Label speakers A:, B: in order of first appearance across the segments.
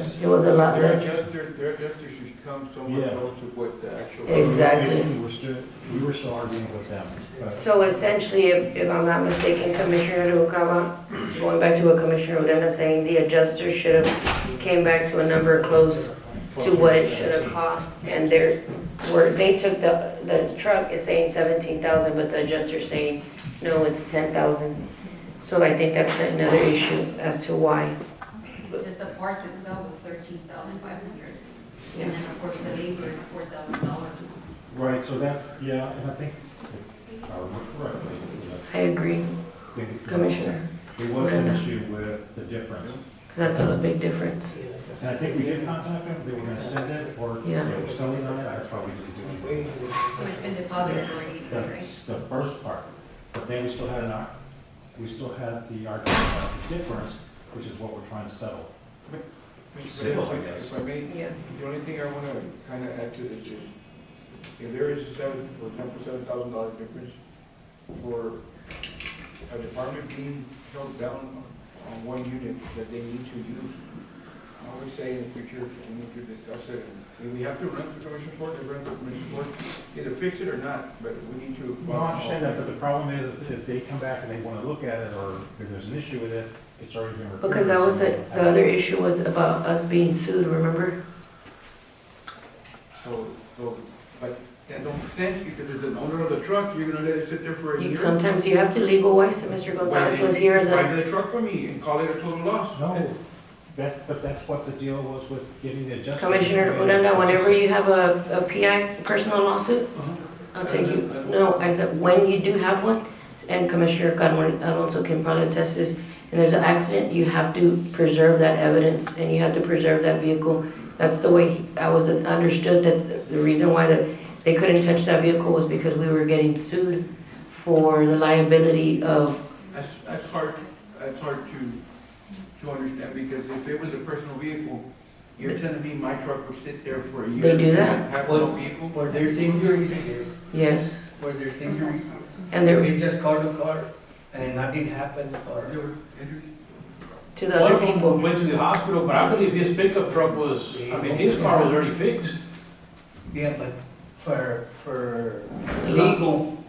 A: It was a lot
B: Their
A: less.
B: adjuster, their adjuster should come somewhere
C: Yeah.
B: close to what the actual.
A: Exactly.
C: Basically, we're still, we were still arguing with them, but
A: So essentially, if, if I'm not mistaken, Commissioner Noguera, going back to what Commissioner Odena saying, the adjuster should have came back to a number close to what it should have cost, and they're, where, they took the, the truck is saying seventeen thousand, but the adjuster's saying, no, it's ten thousand. So I think that's another issue as to why.
D: Just the parts itself is thirteen thousand five hundred, and then of course the labor is four thousand dollars.
C: Right, so that, yeah, and I think, if I remember correctly,
A: I agree,
C: I think it-
A: Commissioner,
C: There was an issue with the difference.
A: because that's a big difference.
C: And I think we did contact them, they were gonna send it, or they
A: Yeah.
C: were selling on it, that's why we didn't do it.
D: So it's been deposited already, right?
C: That's the first part, but then we still had an, ar- we still had the argument about the difference, which is what we're trying to settle. Simple, I guess.
B: If I may,
A: Yeah.
B: the only thing I want to kind of add to this is, if there is a seven, or ten percent, seven thousand dollar difference for a department being held down on one unit that they need to use, I would say in the future, we need to discuss it. If we have to rent the commission board, then rent the commission board, either fix it or not, but we need to.
C: Well, I understand that, but the problem is, if they come back and they wanna look at it, or if there's an issue with it, it's already been recorded.
A: Because that was,
C: so-
A: it. the other issue was about us being sued, remember?
B: So, so, but that don't sense, because as an owner of the truck, you're gonna let it sit there for a
A: You-
B: year?
A: Sometimes you have to legalize, and Mr. Gonzalez was here as
B: Buy
A: a,
B: the truck for me and call it a total loss.
C: No, that, but that's what the deal was with getting the adjustment.
A: Commissioner Odena, whenever you have a, a PI, personal lawsuit, I'll take you, no, I said, when you do have one, and Commissioner Carmen Alonso can probably attest to this, and there's an accident, you have to preserve that evidence, and you have to preserve that vehicle. That's the way he- I was understood, that the reason why that they couldn't touch that vehicle was because we were getting sued for the liability of,
B: That's, that's hard, that's hard to, to understand, because if it was a personal vehicle, you're telling me my truck would sit there for a year?
A: They do that.
B: Have no vehicle?
E: Where there's injuries, yes,
A: yes,
E: where there's injuries.
A: and there,
E: They just called the car and nothing happened or.
B: There were injuries?
A: to the
F: One
A: other
F: of
A: people.
F: them went to the hospital, but I believe his pickup truck was, I mean, his car was already fixed.
E: Yeah, but for, for
A: Law.
E: legal,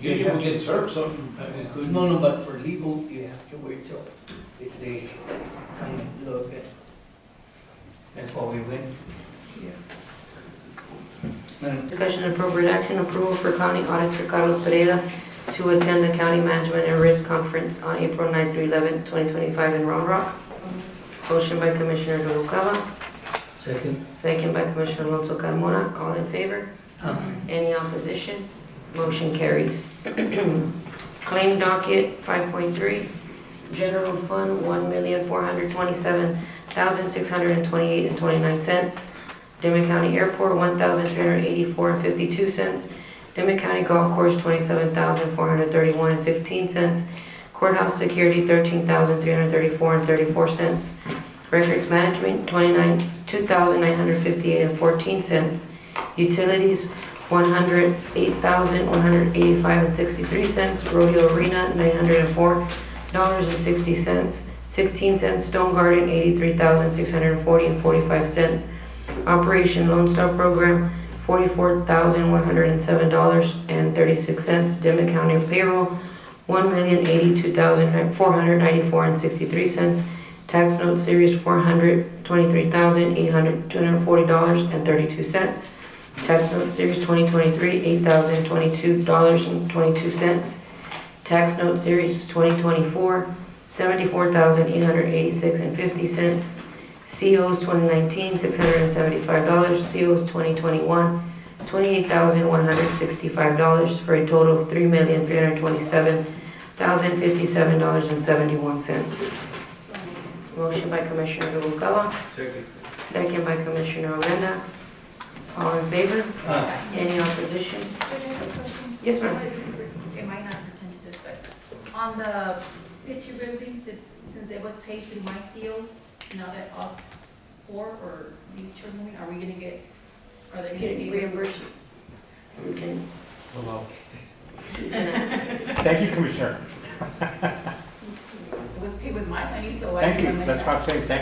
F: You will get uh, served something, I mean, couldn't-
E: no, no, but for legal, you have to wait till they- they come and look at. That's why we went. And
A: Discussion and appropriate action, approval for county auditor Carlos Pereira to attend the county management and risk conference on April 9 through 11, 2025 in Round Rock. Motion by Commissioner Noguera,
E: second,
A: second by Commissioner Alonso Carmona. All in favor? Any opposition? Motion carries. Claim docket 5.3, general fund $1,427,628.29. Demet County Airport, $1,384.52. Demet County Golf Course, $27,431.15. Courthouse Security, $13,334.34. Records Management, 29 $2,958.14. Utilities, $108,185.63. Rodeo Arena, $904.60. 16 cents Stone Garden, $83,640.45. Operation Lone Star Program, forty-four thousand one hundred and seven dollars and thirty-six cents. Demet County payroll, one million eighty-two thousand four hundred ninety-four and sixty-three cents. Tax note series four hundred twenty-three thousand eight hundred two hundred forty dollars and thirty-two cents. Tax note series twenty twenty-three, eight thousand twenty-two dollars and twenty-two cents. Tax note series twenty twenty-four, seventy-four thousand eight hundred eighty-six and fifty cents. COs 2019, $675. COs 2021, $28,165 for a total of $3,327,057.71. Motion by Commissioner Noguera,
B: Second.
A: second by Commissioner Odena. All in favor?
E: uh,
A: Any opposition? Yes, ma'am.
D: It might not pertain to this, but on the picture buildings, it- since it was paid through my seals, now that us four or these children, are we gonna get, are they gonna
A: Getting
D: be?
A: reimbursed? We can,
C: Hello.
A: he's gonna,
C: Thank you, Commissioner.
D: It was paid with my money, so I.
C: Thank you, that's what I'm saying, thank